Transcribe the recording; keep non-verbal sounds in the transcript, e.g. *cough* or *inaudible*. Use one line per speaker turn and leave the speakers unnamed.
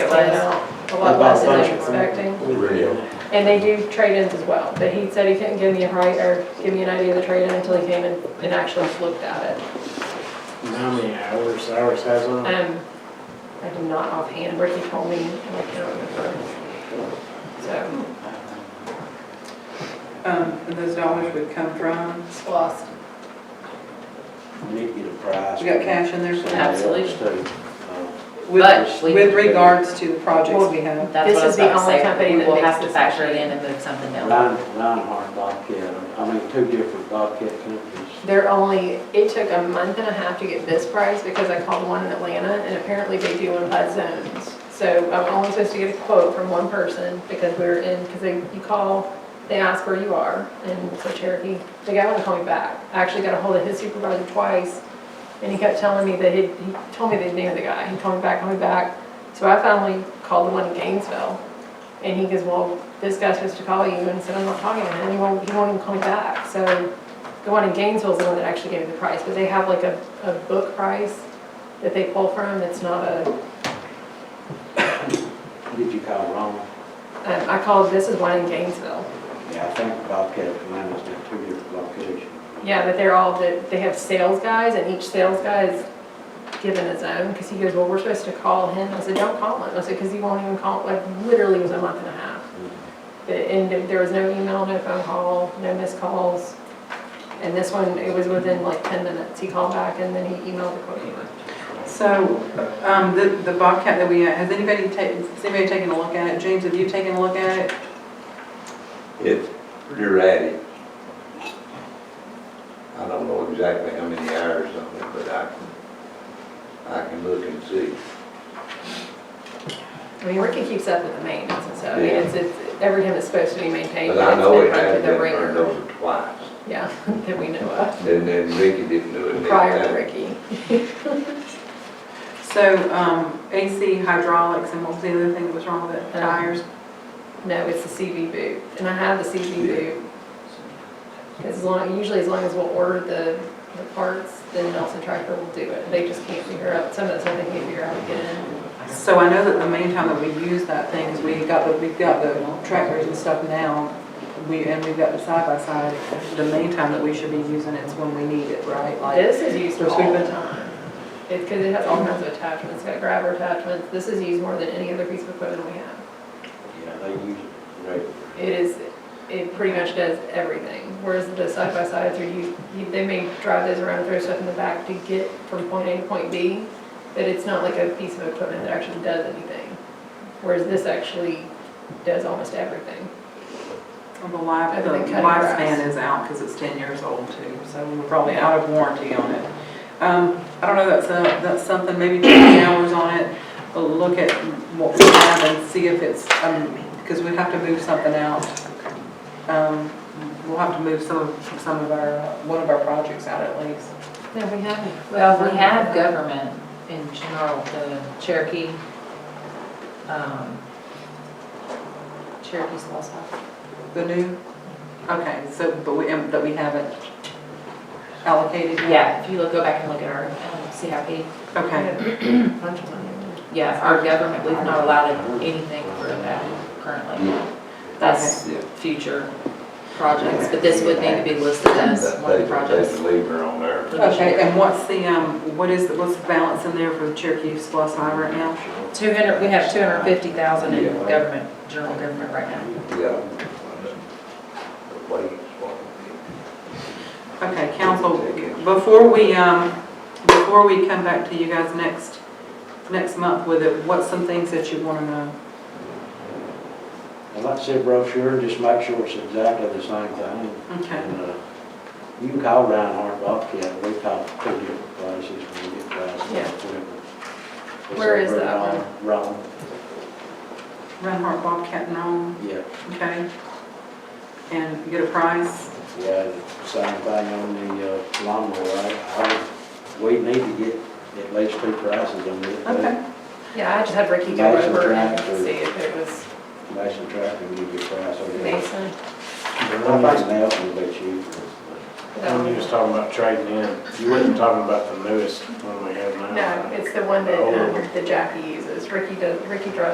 was, a lot less than I was expecting.
Radio.
And they do trade-ins as well, but he said he couldn't give me a right, or give me an idea of the trade-in until he came and, and actually looked at it.
How many hours, hours has on?
Um, I do not offhand, Ricky told me, and I can't remember. So,
Um, and those dollars would come from,
it's lost.
We need to get a price.
we got cash in there somewhere?
Absolutely.
Oh.
With,
But we-
with regards to the projects we have.
That's
This
what
is
I was
the
about to
only
say.
company
We
that
will
makes
have to
this
factor it
machine.
in and move something down.
Nine, Reinhardt Bobcat, I mean, two different Bobcat companies.
They're only, it took a month and a half to get this price because I called one in Atlanta and apparently they do them by zones. So I'm only supposed to get a quote from one person because we're in, because they, you call, they ask where you are. And so Cherokee, the guy wouldn't call me back. I actually got a hold of his supervisor twice and he kept telling me that he, he told me they knew the guy. He called me back, called me back. So I finally called the one in Gainesville and he goes, well, this guy's supposed to call you and said, I'm not talking to him. And he won't, he won't even call me back. So the one in Gainesville is the one that actually gave me the price, but they have like a, a book price that they pull from, it's not a,
Did you call wrong?
um, I called, this is one in Gainesville.
Yeah, I think Bobcat Atlanta's got two different locations.
Yeah, but they're all, that they have sales guys, and each sales guy is given his own, because he goes, well, we're supposed to call him, I said, don't call him, I said, because he won't even call, like, literally it was a month and a half. But, and there was no email, no phone call, no missed calls, and this one, it was within like ten minutes, he called back, and then he emailed the quote.
So, um, the, the Bobcat that we, had, has anybody taken, has anybody taken a look at it? James, have you taken a look at it?
It's erratic. I don't know exactly how many hours on it, but I can, I can look and see.
I mean, Ricky keeps up with the maintenance, so, I mean,
Yeah.
it's, it's, every time it's supposed to be maintained.
But I
it's
know
been
it
run
has
through the
been turned
ringer.
over twice.
Yeah, *laughs* that we know of,
And then Ricky didn't do it next
prior to
time.
Ricky.
So, um, AC hydraulics and what was the other thing that was wrong with it?
Um,
Tires?
No, it's the CV boot, and I have the CV
Yeah.
boot. As long, usually as long as we'll order the, the parts, then Nelson Tractor will do it. They just can't figure out, some of the time they can't figure out how to get in.
So I know that the main time that we use that thing is we got the, we've got the trackers and stuff now, we, and we've got the side-by-side. The main time that we should be using it's when we need it, right? Like,
This is used
So it's
all the
been-
time. It's because it has all kinds of attachments, it's got grabber attachments. This is used more than any other piece of equipment we have.
Yeah, they use it regularly.
It is, it pretty much does everything, whereas the side-by-sides are, you, you- they may drive those around, and throw stuff in the back to get from point A to point B, but it's not like a piece of equipment that actually does anything, whereas this actually does almost everything.
the life, the
Everything cut grass.
lifespan is out because it's ten years old too, so we're probably out of warranty on it. Um, I don't know, that's a, that's something, maybe twenty hours on it, but look at what we have and see if it's, um, because we'd have to move something out. Um, we'll have to move some, of some of our, uh, one of our projects out at least.
No, we haven't.
Well, we have government in general, the Cherokee, um, Cherokee's lost off.
The new, okay, so, but we, um, that we haven't allocated yet?
Yeah, if you look, go back and look at our um, CIP,
Okay,
A bunch of money.
yeah, our government, we've not allowed anything for that currently. That's
Yeah.
future projects, but this would need to be listed as
That
one of
they,
the projects.
they deliver on there.
okay, and what's the, um, what is, the- what's the balance in there for Cherokee Splossi right now?
Two hundred, we have two hundred and fifty thousand in
Yeah.
government, general government right now.
Yeah. Wait, what?
Okay, council, before we, um, before we come back to you guys next, next month with it, what's some things that you want to know?
I'd like to see a brochure, just make sure it's exactly the same thing.
Okay,
And, uh, you can call Reinhardt Bobcat, we call two different places when we get prices.
Yeah.
whatever.
Where is
It's over
that
in, uh, Rome,
Renhart Bobcat and all,
yeah,
okay? And get a price?
yeah, the same thing on the uh, lawnmower, I, I, we need to get at least two prices on it.
Okay,
Yeah, I just had Ricky go
Mason
over and
tractor.
see if it was
Mason Tractor, we give you a price over there.
Mason.
I think Nelson will be cheaper.
When you was talking about trading in, you wasn't talking about the newest one we have now.
No, it's the one that,
The older one.
um, that Jackie uses, Ricky does, Ricky drives